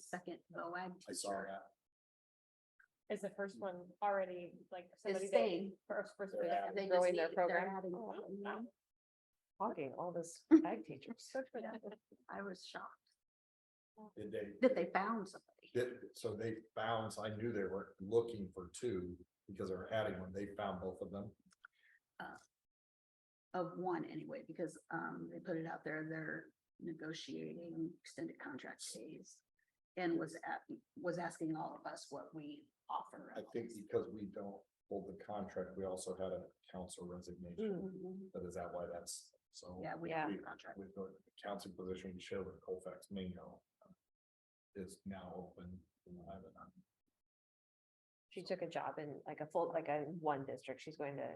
second OAG I saw teacher that. Is the first one already like somebody is that staying. first, first They're that adding. They just growing their need- they're program? adding Oh, wow. something, Wow. yeah. Hogging all this ag teachers. Good for them. I was shocked Did they? that they found somebody. did- so they found, I knew they were looking for two because they were adding one. They found both of them. of one anyway, because um they put it out there, they're negotiating extended contract days. And was at, was asking all of us what we offer. I think because we don't hold the contract, we also had a council resignation. Mm-hmm. Mhm. But is that why that's so? Yeah, we Yeah. have a contract. With the council position, Sheldon Colfax Mingo is now open. I have it on. She took a job in like a full, like a one district. She's going to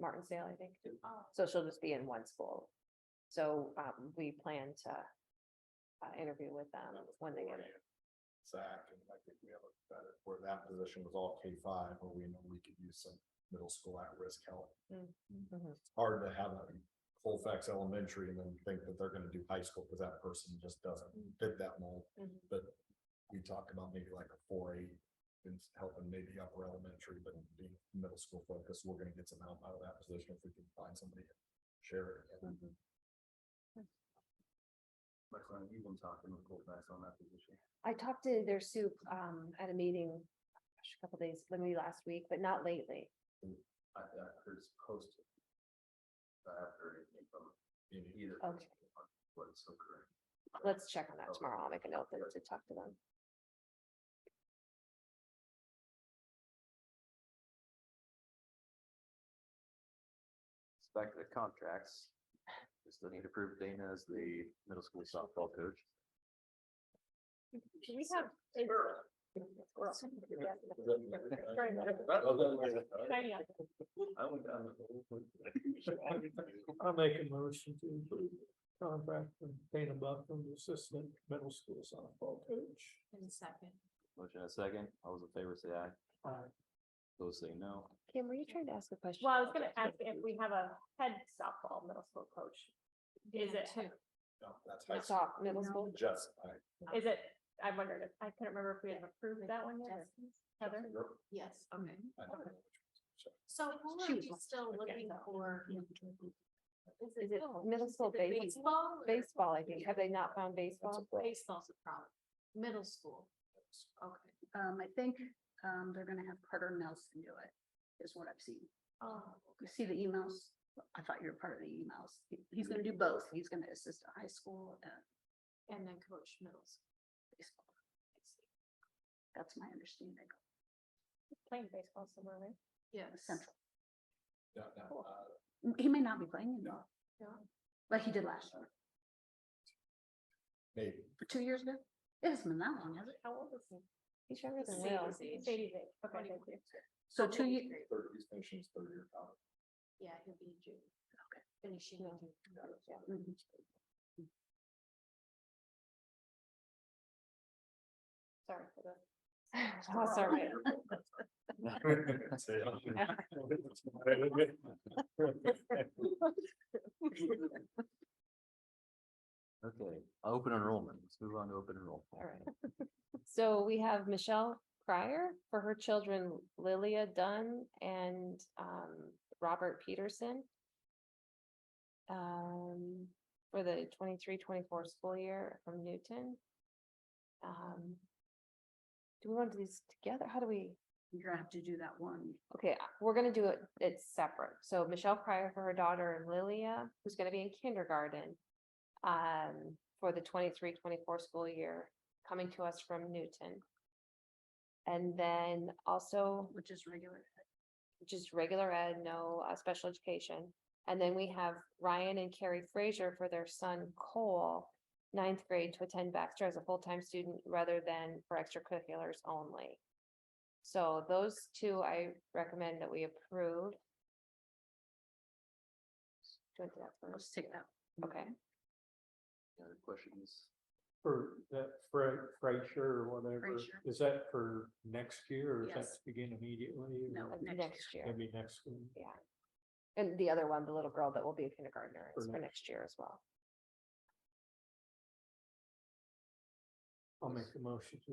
Martinsdale, I think. Oh. So she'll just be in one school. So um, we plan to uh, interview with them when they get it. Zach, and I think we have a better, where that position was all K five, where we know we could use some middle school at-risk help. Mhm. Hard to have a Colfax Elementary and then think that they're gonna do high school, because that person just doesn't fit that mold. Mhm. But we talk about maybe like a four eight and helping maybe upper elementary, but being middle school focused, we're gonna get some help out of that position if we can find somebody. to Share it. My client, you've been talking with Colfax on that position. I talked to their soup um, at a meeting gosh, a couple days, maybe last week, but not lately. I, I heard it's posted. I haven't heard anything from either. Okay. But it's so correct. Let's check on that tomorrow. I'll make a note that to talk to them. It's back to the contracts. We still need to approve Dana as the middle school softball coach. Do we have? a- Squirrel. Yeah. Very good. Very good. I'll make a motion to approve the contract from Dana Buckland, assistant middle school softball coach. Motion in a second. All those in favor say aye. Uh, Aye. Those say no. Kim, were you trying to ask a question? Well, I was gonna ask if we have a head softball middle school coach. Is it, No, that's high I school. saw middle school. Just, I, is it, I wondered if, I couldn't remember if we had approved that one yet. Heather? you're- Yes, okay. I don't know which one's which. So who She are was you like- still looking for? Is it middle Is school it base, Baseball? or- baseball, I think. Have they not found baseball? Baseball's a problem. Middle school. Okay. Um, I think um they're gonna have Carter Nelson do it, is what I've seen. Oh, You see the emails? I thought you were part of the emails. He- He's gonna do both. He's gonna assist at high school and and then coach middle school. baseball. That's my understanding. Playing baseball somewhere, right? Yes. Central. Yeah, no, Cool. uh, He may not be playing anymore. Yeah. Like he did last year, Maybe. for two years ago. It hasn't been that long, has it? How old is he? He's younger than Same Will. as the- It's eighty days. Okay, Twenty- thank you. So two years, Third, these nations, third year college. Yeah, he'll be in June. Okay. Finishing in June. mhm. Sorry for the. That's all right. So, yeah. Okay, open enrollment. Let's move on to open enrollment. All right. So we have Michelle Cryer for her children Lilia Dunn and um Robert Peterson. Um, for the 23-24 school year from Newton. Um. Do we want to do these together? How do we? You're gonna have to do that one. Okay, I- we're gonna do it, it's separate. So Michelle Pryor for her daughter Lilia, who's gonna be in kindergarten. Um, for the 23-24 school year, coming to us from Newton. And then also Which is regular. just regular ed, no uh, special education. And then we have Ryan and Carrie Frazier for their son Cole, ninth grade to attend Baxter as a full-time student rather than for extracurriculars only. So those two I recommend that we approve. Do you want to do that Let's first? take that. Okay, Any other questions? For that Fred, Fraser or whatever, Fraser. is that for next year or is that Yes. to begin immediately? No, or Next next year, Maybe next one. yeah. And the other one, the little girl that will be a kindergartner is For for next year as well. I'll make a motion to